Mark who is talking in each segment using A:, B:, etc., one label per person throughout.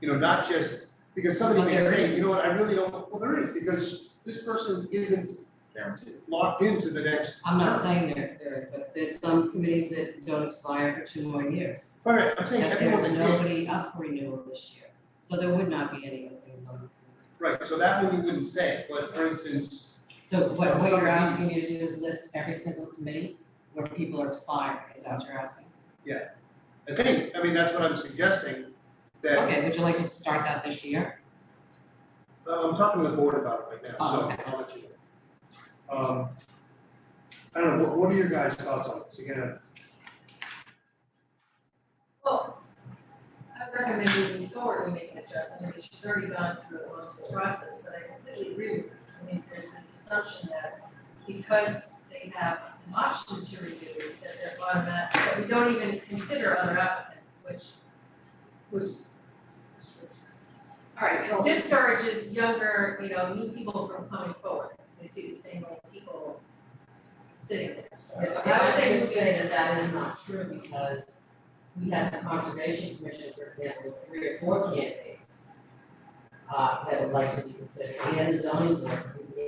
A: You know, not just, because somebody
B: But
A: may
B: there
A: say,
B: is.
A: you know what, I really don't, well, there is, because this person isn't
C: Guaranteed.
A: locked into the next
B: I'm
A: term.
B: not saying there, there is, but there's some committees that don't expire for two more years.
A: All right, I'm saying
B: That
A: everyone's
B: there's
A: a
B: nobody up for renewal this year, so there would not be any openings on.
A: right, so that one you wouldn't say, but for instance,
B: So what, what
A: Some
B: you're
A: of these-
B: asking me to do is list every single committee where people are expired, is that what you're asking?
A: I think, I mean, that's what I'm suggesting, that,
B: Okay, would you like to start that this year?
A: uh, I'm talking to the board about it right now,
B: Oh,
A: so
B: okay.
A: I'll let you know. Um, I don't know, what, what are your guys' thoughts on this? Again,
D: Well, I recommend moving forward, we make an adjustment, because she's already gone through the most of the process, but I completely agree with her. I mean, there's this assumption that because they have an option to renew, that they're automatic, that we don't even consider other applicants, which, which all right, discourages younger, you know, new people from coming forward, because they see the same old people sitting there, so I would say just
B: say that that is not true because we had the conservation commission, for example, three or four candidates uh, that would like to be considered, we had a zoning board, CBA.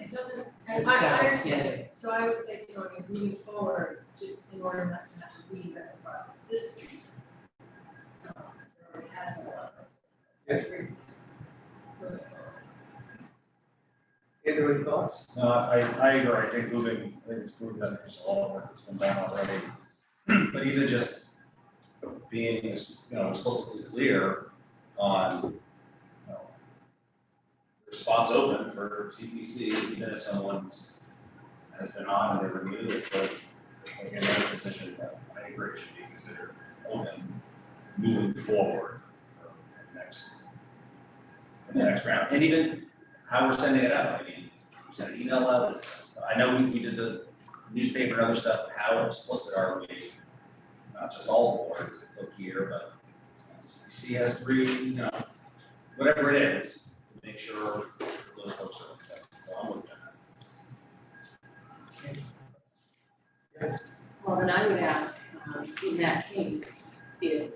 D: It doesn't, I,
B: It's
D: I
B: separate
D: understand,
B: candidates.
D: it. so I would say to Tony, moving forward, just in order not to have to reinvent the process, this is. Already has been a lot.
A: Yes. Andrew, any thoughts?
C: No, I, I agree, I think moving, I think it's proven that there's a lot of work that's been done already. But even just being, you know, explicitly clear on, you know, there's spots open for CPC, even if someone's, has been on and they're renewed, it's like, it's like another position that I agree should be considered open, moving forward for the next, for the next round, and even how we're sending it out, I mean, we sent an email out, I know we, we did the newspaper and other stuff, but how explicit are we? Not just all boards that look here, but CPC has three, you know, whatever it is, to make sure those folks are protected, so I'm with that.
E: Well, then I would ask, um, in that case, if,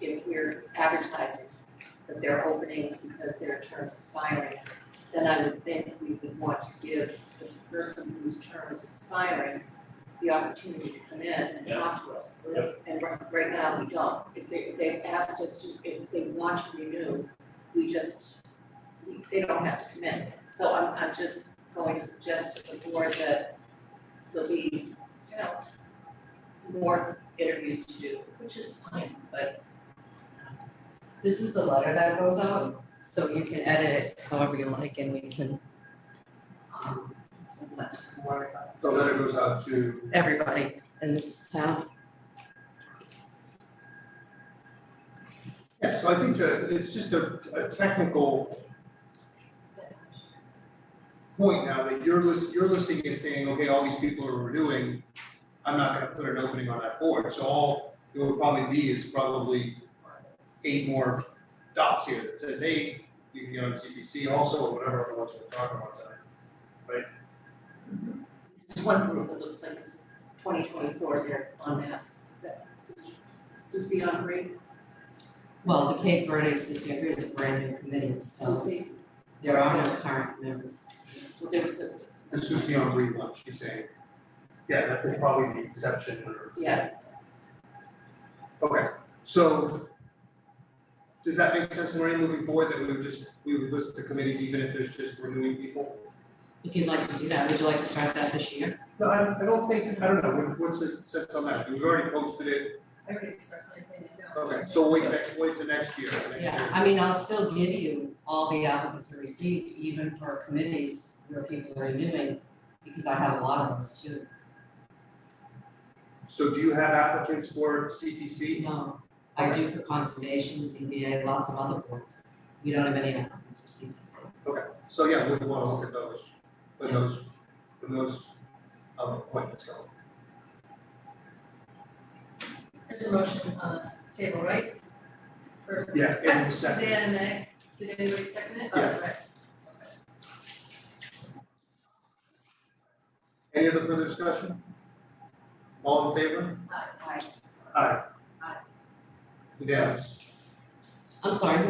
E: if we're advertising that there are openings because there are terms expiring, then I would think we would want to give the person whose term is expiring the opportunity to come in and talk to us. And right, right now, we don't. If they, if they've asked us to, if they want to renew, we just, we- they don't have to come in. So I'm, I'm just going to suggest to the board that there'll be, you know, more interviews to do, which is fine, but
B: This is the letter that goes out, so you can edit it however you like and we can um, send that to the board,
A: The letter goes out to,
B: everybody in this town.
A: yeah, so I think that it's just a, a technical point now that you're list, you're listing and saying, okay, all these people are renewing, I'm not gonna put an opening on that board, so all it would probably be is probably eight more dots here that says, hey, you can get on CPC also, or whatever other ones we're talking about tonight.
E: there's one group that looks like it's twenty twenty-four, they're on mass, is that Sus- Susie on green?
B: Well, the Cape Verde Association is a brand new committee, so
E: Susie,
B: there are no current members.
E: well, there was a,
A: The Susie on relaunch, she's saying, yeah, that is probably the exception or
E: yeah,
A: Okay, so does that make sense, Maureen, moving forward, that we would just, we would list the committees even if there's just renewing people?
B: If you'd like to do that, would you like to start that this year?
A: No, I, I don't think, I don't know, what- what's the sense on that? We've already posted it,
D: I already expressed my opinion, no.
A: okay, so wait, next, wait to next year, next
B: Yeah,
A: year.
B: I mean, I'll still give you all the applicants we received, even for committees where people are renewing, because I have a lot of those too.
A: So do you have applicants for CPC?
B: No, I do for conservation, CBA, lots of other boards. We don't have any applicants for CBC.
A: So, yeah, we'd wanna look at those, when those, when those, um, appointments go.
D: There's a motion on the table, right? For
A: Yeah, and the second.
D: Suzanne and Meg, did anybody second it?
A: Yeah.
D: Oh, right.
A: Any other further discussion? All in favor?
D: Aye.
E: I,
A: Aye.
D: Aye.
A: Unanimous.
B: I'm sorry, who